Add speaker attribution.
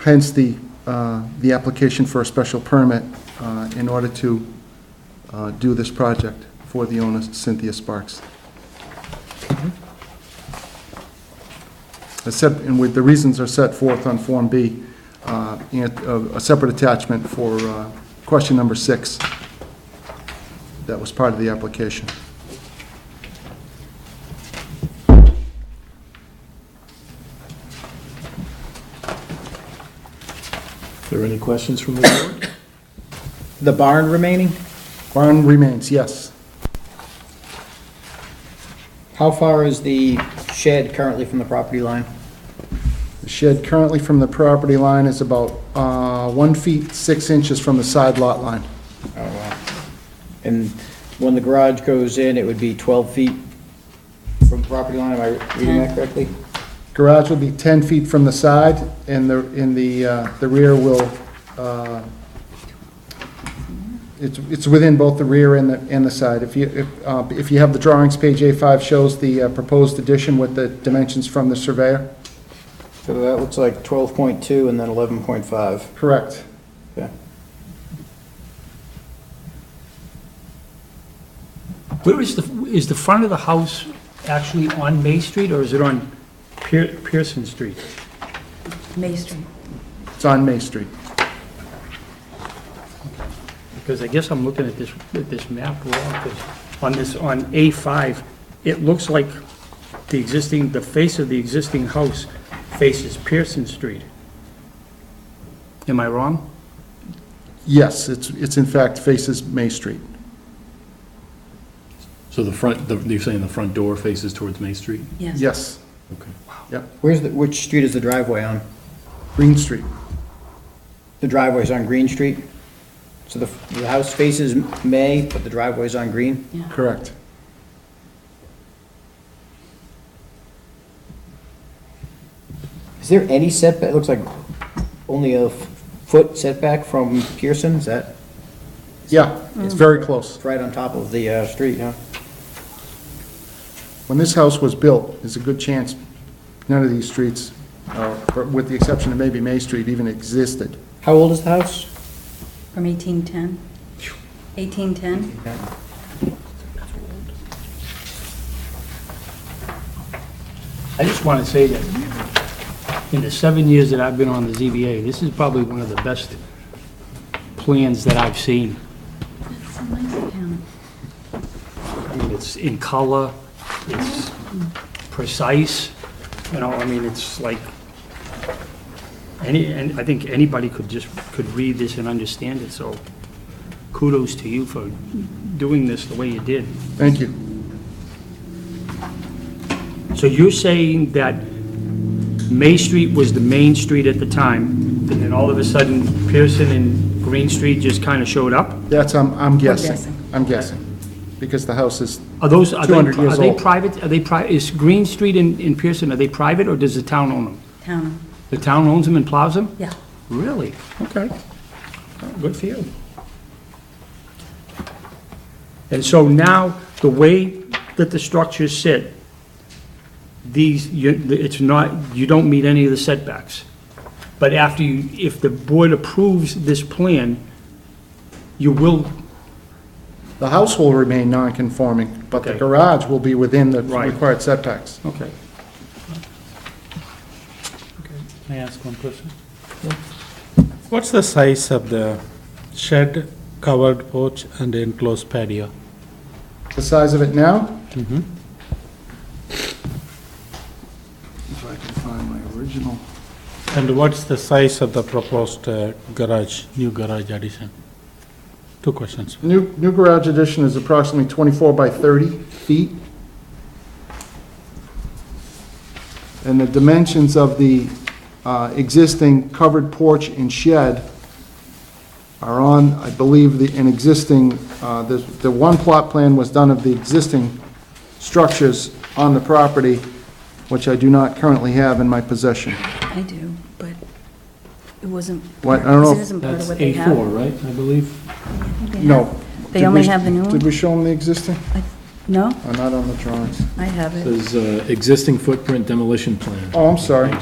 Speaker 1: Hence the, uh, the application for a special permit uh, in order to uh, do this project for the owner Cynthia Sparks. As said, and with, the reasons are set forth on Form B, uh, and uh, a separate attachment for uh, question number six that was part of the application.
Speaker 2: there any questions from the board?
Speaker 3: The barn remaining,
Speaker 1: Barn remains, yes.
Speaker 3: how far is the shed currently from the property line?
Speaker 1: The shed currently from the property line is about uh, one feet, six inches from the side lot line.
Speaker 3: Oh, wow. And when the garage goes in, it would be 12 feet from property line, am I reading that correctly?
Speaker 1: Garage will be 10 feet from the side, and the, in the, uh, the rear will, uh, it's, it's within both the rear and the, and the side. If you, if, uh, if you have the drawings, page A5 shows the uh, proposed addition with the dimensions from the surveyor.
Speaker 3: So that looks like 12.2 and then 11.5.
Speaker 1: Correct.
Speaker 3: Okay.
Speaker 4: Where is the, is the front of the house actually on May Street, or is it on Pier- Pearson Street?
Speaker 5: May Street.
Speaker 1: It's on May Street.
Speaker 4: Because I guess I'm looking at this, at this map wrong, 'cause on this, on A5, it looks like the existing, the face of the existing house faces Pearson Street. Am I wrong?
Speaker 1: Yes, it's, it's in fact faces May Street.
Speaker 2: So the front, the- you're saying the front door faces towards Main Street?
Speaker 5: Yes.
Speaker 1: Yes,
Speaker 2: Okay.
Speaker 3: Where's the, which street is the driveway on?
Speaker 1: Green Street.
Speaker 3: The driveway's on Green Street? So the, the house faces May, but the driveway's on Green?
Speaker 1: Correct.
Speaker 3: Is there any setback, it looks like only a foot setback from Pearson, is that?
Speaker 1: Yeah, it's very close.
Speaker 3: It's right on top of the, uh, street, huh?
Speaker 1: When this house was built, there's a good chance none of these streets, uh, or with the exception of maybe May Street, even existed.
Speaker 3: How old is the house?
Speaker 5: From 1810? 1810?
Speaker 4: I just want to say that in the seven years that I've been on the ZBA, this is probably one of the best plans that I've seen.
Speaker 5: That's a nice town.
Speaker 4: I mean, it's in color, it's precise, you know, I mean, it's like, any, and I think anybody could just, could read this and understand it, so kudos to you for doing this the way you did.
Speaker 1: Thank you.
Speaker 4: So you're saying that May Street was the main street at the time, and then all of a sudden Pearson and Green Street just kind of showed up?
Speaker 1: That's, I'm, I'm guessing.
Speaker 5: guessing.
Speaker 1: I'm guessing, because the house is,
Speaker 4: Are those, are they,
Speaker 1: 200 years
Speaker 4: are they
Speaker 1: old.
Speaker 4: private, are they pri, is Green Street and, and Pearson, are they private, or does the town own them?
Speaker 5: Town,
Speaker 4: The town owns them and plows them?
Speaker 5: yeah.
Speaker 4: Really? Okay. Well, Good for you. And so now, the way that the structures sit, these, you, it's not, you don't meet any of the setbacks. But after you, if the board approves this plan, you will,
Speaker 1: the house will remain non-conforming, but the
Speaker 4: Okay.
Speaker 1: garage will be within the
Speaker 4: Right.
Speaker 1: required setbacks.
Speaker 4: okay.
Speaker 6: May I ask one question? What's the size of the shed, covered porch, and enclosed patio?
Speaker 1: The size of it now?
Speaker 4: Mm-hmm.
Speaker 6: Mhm.
Speaker 1: If I can find my original.
Speaker 6: And what's the size of the proposed uh, garage, new garage addition? Two questions.
Speaker 1: New, new garage addition is approximately 24 by 30 feet. And the dimensions of the uh, existing covered porch and shed are on, I believe, the, an existing, uh, the, the one plot plan was done of the existing structures on the property, which I do not currently have in my possession.
Speaker 5: I do, but it wasn't.
Speaker 1: What? I don't know
Speaker 5: It
Speaker 1: if-
Speaker 5: isn't part of
Speaker 6: That's
Speaker 5: what they have.
Speaker 6: A4, right, I believe?
Speaker 1: No.
Speaker 5: They
Speaker 1: Did
Speaker 5: only
Speaker 1: we-
Speaker 5: have the new one?
Speaker 1: Did we show them the existing?
Speaker 5: I- No,
Speaker 1: Or not on the drawings?
Speaker 5: I have it.
Speaker 2: Says uh, existing footprint demolition plan.
Speaker 1: Oh, I'm sorry.